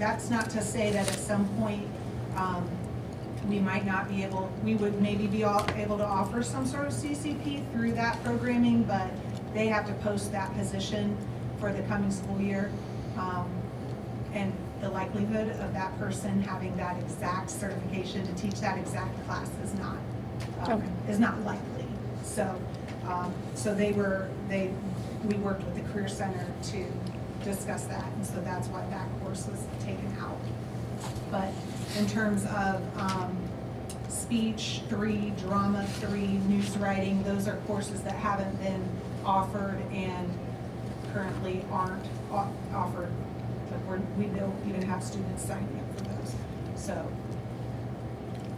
That's not to say that at some point, um, we might not be able, we would maybe be all, able to offer some sort of CCP through that programming, but they have to post that position for the coming school year. Um, and the likelihood of that person having that exact certification to teach that exact class is not, um, Okay. is not likely. So, um, so they were, they, we worked with the Career Center to discuss that, and so that's why that course was taken out. But in terms of, um, speech three, drama three, news writing, those are courses that haven't been offered and currently aren't o- offered. Like, we're, we don't even have students signing up for those. So,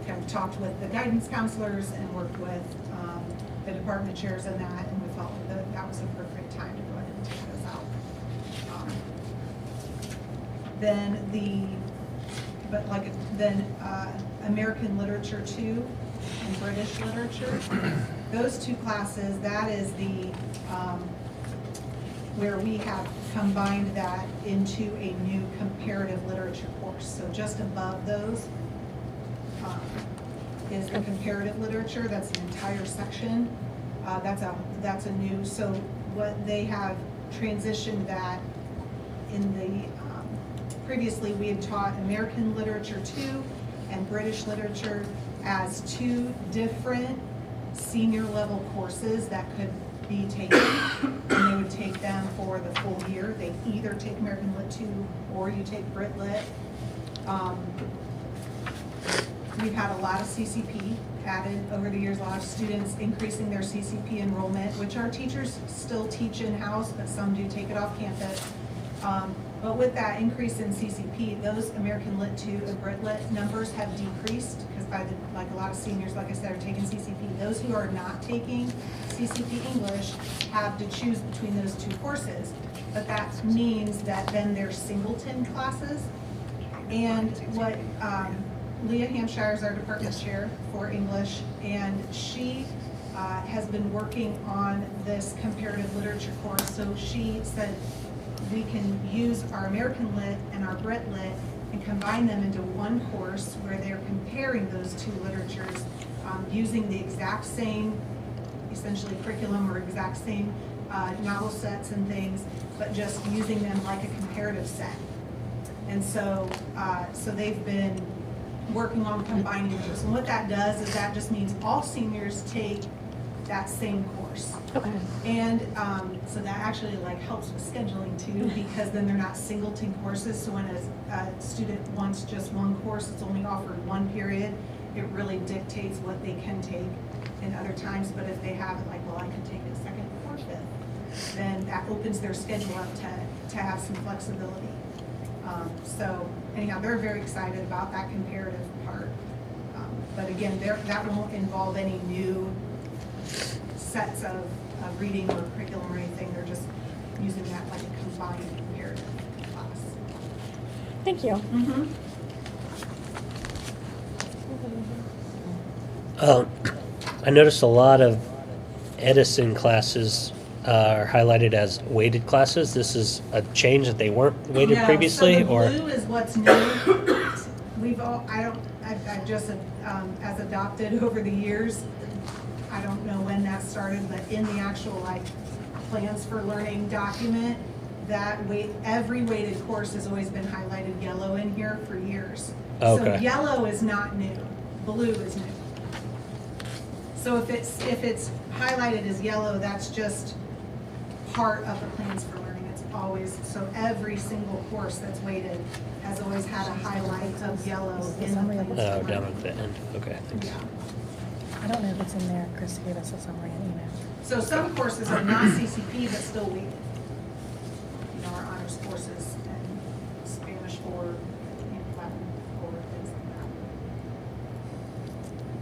kind of talked with the guidance counselors and worked with, um, the department chairs and that, and we felt that that was appropriate time to go ahead and take those out. Um, Then the but like, then uh, American literature two and British literature, those two classes, that is the, um, where we have combined that into a new comparative literature course. So just above those um, is the comparative literature, that's an entire section. Uh, That's a, that's a new, so what they have transitioned that in the, um, previously, we had taught American Literature Two and British Literature as two different senior-level courses that could be taken. And they would take them for the full year. They either take American Lit Two or you take Brit Lit. Um, We've had a lot of CCP added over the years, a lot of students increasing their CCP enrollment, which our teachers still teach in-house, but some do take it off campus. Um, But with that increase in CCP, those American Lit 2 and Brit Lit numbers have decreased because by the, like a lot of seniors, like I said, are taking CCP. Those who are not taking CCP English have to choose between those two courses. But that means that then their singleton classes and what, um, Leah Hampshire is our department chair for English, and she, uh, has been working on this comparative literature course. So she said, we can use our American Lit and our Brit Lit and combine them into one course where they're comparing those two literatures, um, using the exact same essentially curriculum or exact same uh, novel sets and things, but just using them like a comparative set. And so, uh, so they've been working on combining those. And what that does is that just means all seniors take that same course. Okay. And um, so that actually like helps with scheduling too, because then they're not singleton courses. So when a, a student wants just one course, it's only offered one period. It really dictates what they can take in other times. But if they have it like, well, I can take a second or fifth, then that opens their schedule up to, to have some flexibility. Um, So anyhow, they're very excited about that comparative part. Um, But again, there, that won't involve any new sets of, of reading or curriculum or anything, they're just using that like a combined comparative class. Thank you. Um, I noticed a lot of Edison classes uh, are highlighted as weighted classes. This is a change that they weren't weighted No, previously, so the or blue is what's new. We've all, I don't, I've, I've just, um, as adopted over the years, I don't know when that started, but in the actual like plans for learning document, that weight, every weighted course has always been highlighted yellow in here for years. So Okay. yellow is not new, blue is new. So if it's, if it's highlighted as yellow, that's just part of the plans for learning. It's always, so every single course that's weighted has always had a highlight of yellow in the plans oh, for down learning. at the end. Okay, thanks. Yeah. I don't know if it's in there. Chris gave us a summary and email. So some courses are not CCP but still weighted. You know, our honors courses and Spanish or, you know, Latin or things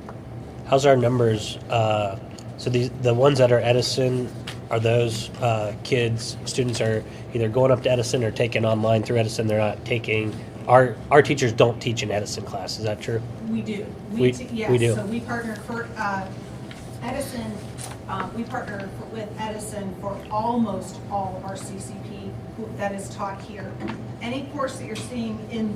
like How's our numbers? Uh, so these the ones that are Edison are those uh, kids students are either going up to Edison or taking online through Edison. They're not taking our our teachers don't teach an Edison class. Is that true? that. We do. We- t- we yes, do. So we partner for, uh, Edison, uh, we partner for- with Edison for almost all of our CCP who- that is taught here. Any course that you're seeing in